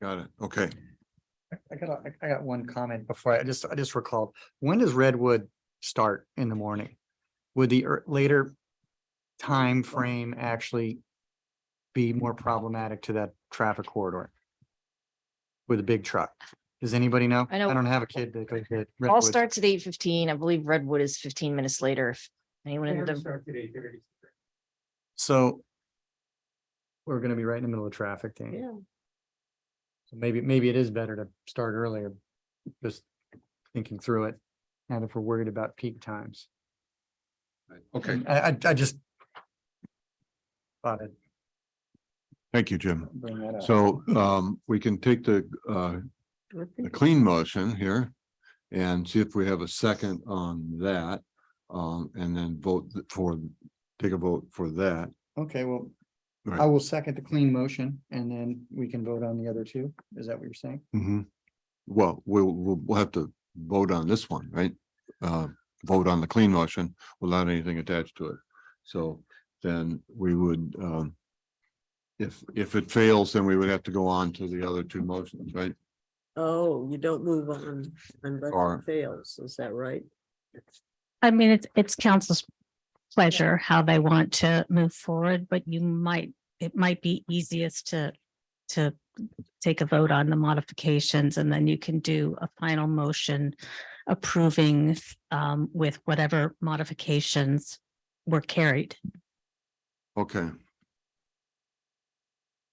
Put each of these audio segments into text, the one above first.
Got it. Okay. I got, a- I got one comment before, I just, I just recalled, when does Redwood start in the morning? Would the ear- later time frame actually be more problematic to that traffic corridor? With a big truck? Does anybody know? I know- don't have a kid that goes to All Redwood. starts at eight fifteen. I believe Redwood is fifteen minutes later. If anyone in the, So we're gonna be right in the middle of traffic, Danny. Yeah. So maybe, maybe it is better to start earlier, just thinking through it, and if we're worried about peak times. Okay. I, I, I just thought I'd Thank you, Jim. bring that up. So um, we can take the uh, the clean motion here and see if we have a second on that. Um, and then vote for, take a vote for that. Okay, well, Right. I will second the clean motion and then we can vote on the other two. Is that what you're saying? Mhm. Well, we'll, we'll, we'll have to vote on this one, right? Uh, vote on the clean motion without anything attached to it. So then we would, um, if, if it fails, then we would have to go on to the other two motions, right? Oh, you don't move on unless Or- it fails, is that right? I mean, it's, it's council's pleasure how they want to move forward, but you might, it might be easiest to, to take a vote on the modifications and then you can do a final motion approving um, with whatever modifications were carried. Okay.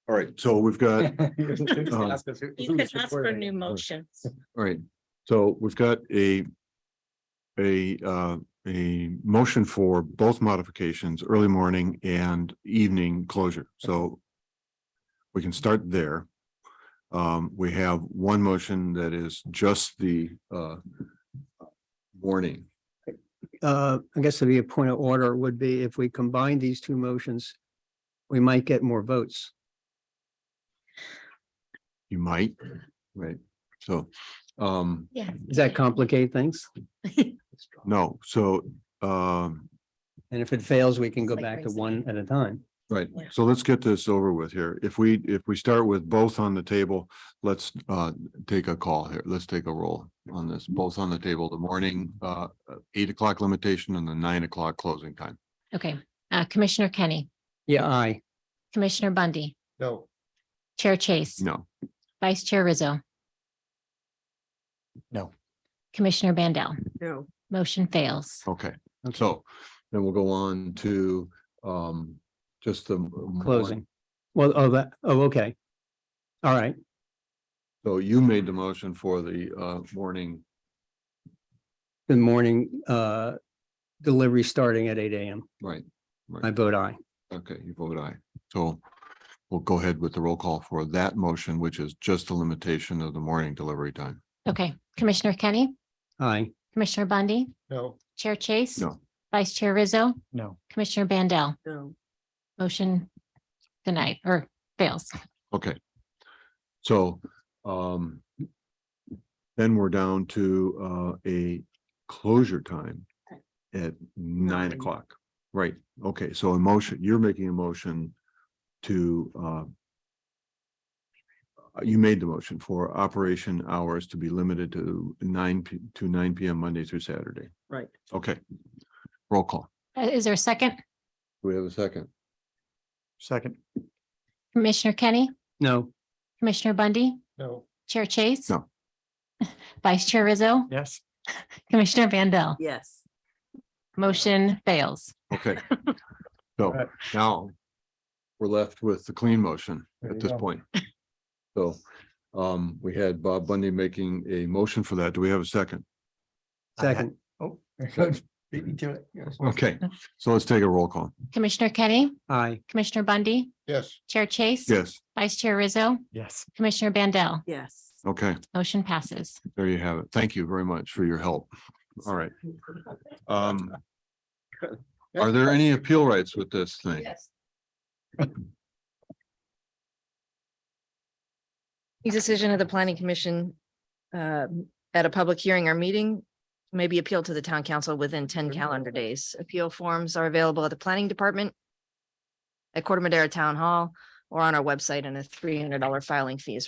All right, so we've got Um, You can ask for new motions. All right, so we've got a. A uh, a motion for both modifications, early morning and evening closure, so. We can start there. Um, we have one motion that is just the uh. Warning, uh, I guess it'd be a point of order would be if we combine these two motions, we might get more votes. you might, right, so, um, Yeah. Does that complicate things? no, so, um. And if it fails, we can go Like back to raising one at a time. Right, Yeah. so let's get this over with here. If we, if we start with both on the table, let's uh take a call here. Let's take a roll on this, both on the table, the morning uh eight o'clock limitation and the nine o'clock closing time. Okay, uh, Commissioner Kenny, Yeah, I, Commissioner Bundy, No. Chair Chase, No, Vice Chair Rizzo. No. Commissioner Bandel, No, motion fails. okay, so then we'll go on to um just the. morning. closing. Well, oh, that, oh, okay. All right, So you made the motion for the uh morning, good morning, uh, delivery starting at eight AM. right? I vote aye. Okay, you vote aye. So we'll go ahead with the roll call for that motion, which is just the limitation of the morning delivery time. Okay, Commissioner Kenny, Aye. Commissioner Bundy, No. Chair Chase. No. Vice Chair Rizzo, No. Commissioner Bandel, no, motion denied or fails. Okay. So um then we're down to uh a closure time at nine Nine. o'clock. Right, okay, so a motion, you're making a motion to uh you made the motion for operation hours to be limited to nine p- to nine PM Monday through Saturday. right. Okay. Roll call. Uh, Is there a second? Do we have a second? Second, Commissioner Kenny, No, Commissioner Bundy, No. Chair Chase. No. Vice Chair Rizzo, yes, Commissioner Bandel, Yes. motion fails. Okay. So Right. now we're left with the clean motion There at you this go. point. So um, we had Bob Bundy making a motion for that. Do we have a second? second, oh. Beat me to it. Okay, so let's take a roll call. Commissioner Kenny, aye. Commissioner Bundy, Yes. Chair Chase. Yes, Vice Chair Rizzo, Yes. Commissioner Bandel, Yes. okay, motion passes. there you have it. Thank you very much for your help. All right. Um, are there any appeal rights with this thing? decision of the planning commission um, at a public hearing or meeting may be appealed to the town council within ten calendar days. Appeal forms are available at the planning department at Corder Madera Town Hall or on our website and a three hundred dollar filing fee is